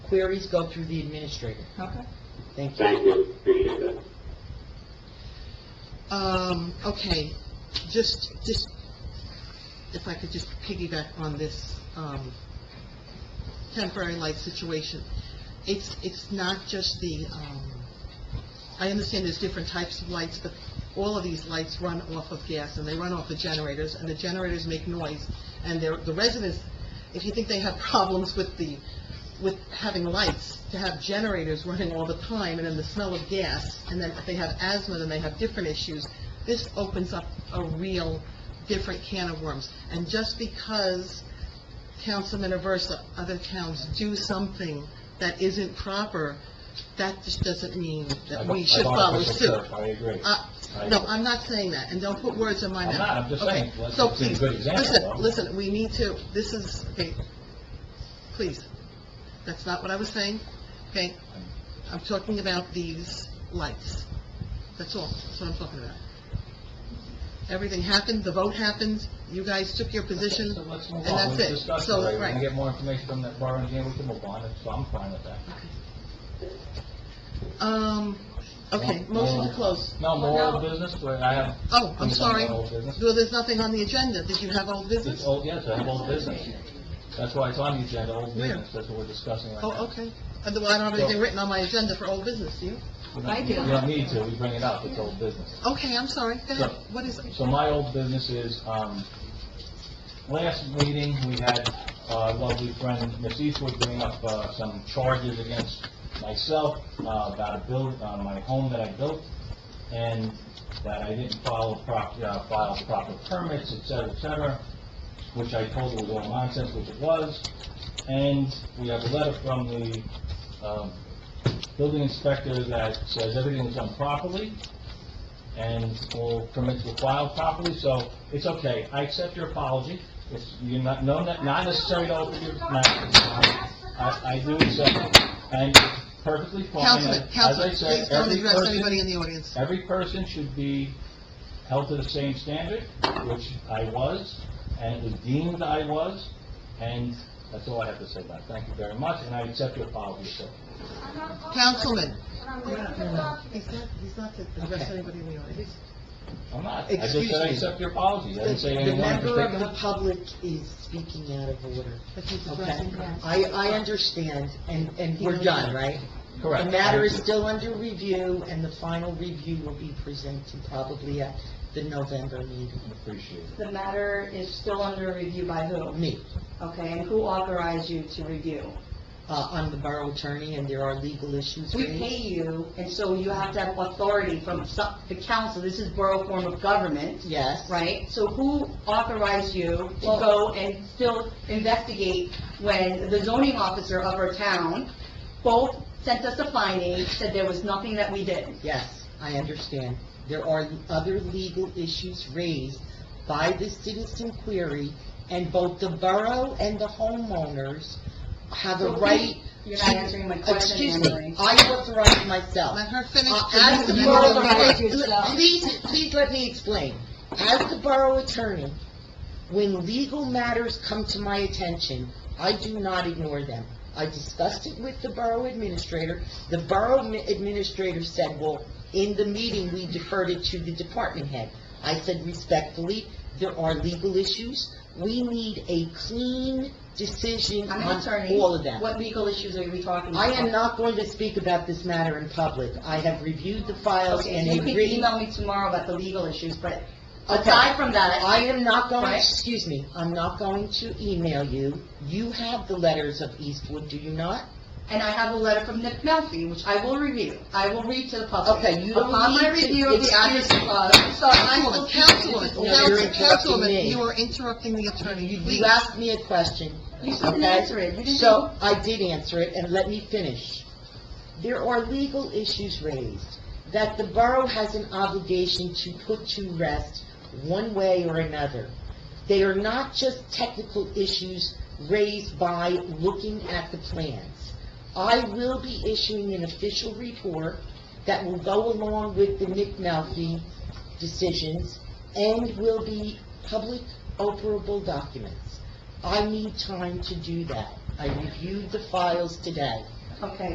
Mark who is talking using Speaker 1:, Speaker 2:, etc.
Speaker 1: queries go through the administrator.
Speaker 2: Okay.
Speaker 1: Thank you.
Speaker 3: Thank you, appreciate that.
Speaker 2: Um, okay, just, just, if I could just piggyback on this, um, temporary light situation. It's, it's not just the, um, I understand there's different types of lights, but all of these lights run off of gas, and they run off the generators, and the generators make noise, and they're, the residents, if you think they have problems with the, with having lights, to have generators running all the time, and then the smell of gas, and then if they have asthma, then they have different issues, this opens up a real different can of worms. And just because Councilman Aversa, other towns do something that isn't proper, that just doesn't mean that we should follow suit.
Speaker 4: I agree.
Speaker 2: Uh, No, I'm not saying that, and don't put words in my mouth.
Speaker 4: I'm not, I'm just
Speaker 2: Okay,
Speaker 4: saying, let's-
Speaker 2: so
Speaker 4: it's a
Speaker 2: please,
Speaker 4: good example, though.
Speaker 2: Listen, listen, we need to, this is, okay, please, that's not what I was saying, okay? I'm talking about these lights, that's all, that's what I'm talking about. Everything happened, the vote happened, you guys took your position,
Speaker 4: So let's move
Speaker 2: and
Speaker 4: on,
Speaker 2: that's
Speaker 4: let's
Speaker 2: it.
Speaker 4: discuss it
Speaker 2: So,
Speaker 4: later, we
Speaker 2: right.
Speaker 4: can get more information from that bar engineer, we can move on, so I'm fine with that.
Speaker 2: um, okay, motion to close.
Speaker 4: No, more old business, but I have...
Speaker 2: Oh, I'm
Speaker 4: things on
Speaker 2: sorry,
Speaker 4: my Old business.
Speaker 2: well, there's nothing on the agenda, did you have old
Speaker 4: It's
Speaker 2: business?
Speaker 4: old, yes, I have old business. That's why it's on the agenda, old
Speaker 2: Where?
Speaker 4: business, that's what we're discussing right now.
Speaker 2: Oh, okay. Uh, well, I don't have anything written on my agenda for old business, do you?
Speaker 4: We don't-
Speaker 5: I do.
Speaker 4: You don't need to, we bring it up, it's old business.
Speaker 2: Okay, I'm sorry, go ahead.
Speaker 4: Sure.
Speaker 2: What is it?
Speaker 4: So my old business is, um, last meeting, we had uh, lovely friend, Miss Eastwood, bring up uh, some charges against myself uh, about a build, uh, my home that I built, and that I didn't follow prop, uh, file proper permits, et cetera, et cetera, which I told her was all nonsense, which it was. And we have a letter from the, um, building inspector that says everything was done properly, and all permits were filed properly, so it's okay. I accept your apology. It's, you're not, no, not not necessary to open your mouth. I, I do accept it, and it's perfectly fine.
Speaker 2: Councilman,
Speaker 4: As I
Speaker 2: Councilman,
Speaker 4: said,
Speaker 2: please don't
Speaker 4: every
Speaker 2: address
Speaker 4: person-
Speaker 2: anybody in the audience.
Speaker 4: Every person should be held to the same standard, which I was, and it was deemed I was, and that's all I have to say about it. Thank you very much, and I accept your apology, sir.
Speaker 2: Councilman. He's not, he's not to address
Speaker 1: Okay.
Speaker 2: anybody in the audience.
Speaker 4: I'm not, I just
Speaker 1: Excuse
Speaker 4: said I
Speaker 1: me.
Speaker 4: accept your apology, I didn't say
Speaker 1: The
Speaker 4: anything in
Speaker 1: member of
Speaker 4: particular.
Speaker 1: the public is speaking out of order,
Speaker 2: But he's
Speaker 1: okay?
Speaker 2: addressing us.
Speaker 1: I, I understand, and, and we're done, right?
Speaker 4: Correct.
Speaker 1: The matter is still under review, and the final review will be presented probably at the November meeting.
Speaker 4: Appreciate it.
Speaker 5: The matter is still under review by who?
Speaker 1: Me,
Speaker 5: Okay, and who authorized you to review?
Speaker 1: uh, I'm the borough attorney, and there are legal issues
Speaker 5: We
Speaker 1: raised.
Speaker 5: pay you, and so you have to have authority from some- the council, this is borough form of government,
Speaker 1: Yes.
Speaker 5: right? So who authorized you to go and still investigate when the zoning officer of our town both sent us a finding, said there was nothing that we did?
Speaker 1: Yes, I understand. There are other legal issues raised by the citizen query, and both the borough and the homeowners have a
Speaker 5: So who-
Speaker 1: right...
Speaker 5: You're not answering my question,
Speaker 1: Excuse
Speaker 5: Anne Marie.
Speaker 1: me, I authorize myself.
Speaker 2: Let her finish.
Speaker 1: Uh,
Speaker 2: and
Speaker 1: As
Speaker 2: then
Speaker 1: the
Speaker 2: you
Speaker 1: borough
Speaker 2: will-
Speaker 5: authorize
Speaker 1: attorney,
Speaker 5: yourself.
Speaker 1: please, please let me explain. As the borough attorney, when legal matters come to my attention, I do not ignore them. I discussed it with the borough administrator. The borough mi- administrator said, well, in the meeting, we deferred it to the department head. I said respectfully, there are legal issues. We need a clean decision
Speaker 5: I'm an
Speaker 1: on
Speaker 5: attorney.
Speaker 1: all of them.
Speaker 5: What legal issues are we talking
Speaker 1: I
Speaker 5: about?
Speaker 1: am not going to speak about this matter in public. I have reviewed the files
Speaker 5: Okay,
Speaker 1: and
Speaker 5: you
Speaker 1: have
Speaker 5: can
Speaker 1: written...
Speaker 5: email me tomorrow about the legal issues, but
Speaker 1: Okay.
Speaker 5: aside from that,
Speaker 1: I am not going,
Speaker 5: Right.
Speaker 1: excuse me, I'm not going to email you. You have the letters of Eastwood, do you not?
Speaker 5: and I have a letter from Nick Melfi, which I will review. I will read to the public.
Speaker 1: Okay, you don't
Speaker 5: Upon my
Speaker 1: need to-
Speaker 5: review of the
Speaker 1: excuse
Speaker 5: address,
Speaker 1: me.
Speaker 5: uh, I'm sorry, I will
Speaker 2: Councilwoman,
Speaker 5: speak
Speaker 2: Councilwoman,
Speaker 5: to this
Speaker 1: No, you're
Speaker 2: Council-
Speaker 5: order.
Speaker 1: interrupting me.
Speaker 2: Councilwoman, you are interrupting the attorney, please.
Speaker 1: You asked me a question.
Speaker 5: You said
Speaker 1: okay?
Speaker 5: answer it. You didn't-
Speaker 1: So, I did answer it, and let me finish. There are legal issues raised that the borough has an obligation to put to rest one way or another. They are not just technical issues raised by looking at the plans. I will be issuing an official report that will go along with the Nick Melfi decisions and will be public operable documents. I need time to do that. I reviewed the files today.
Speaker 5: Okay.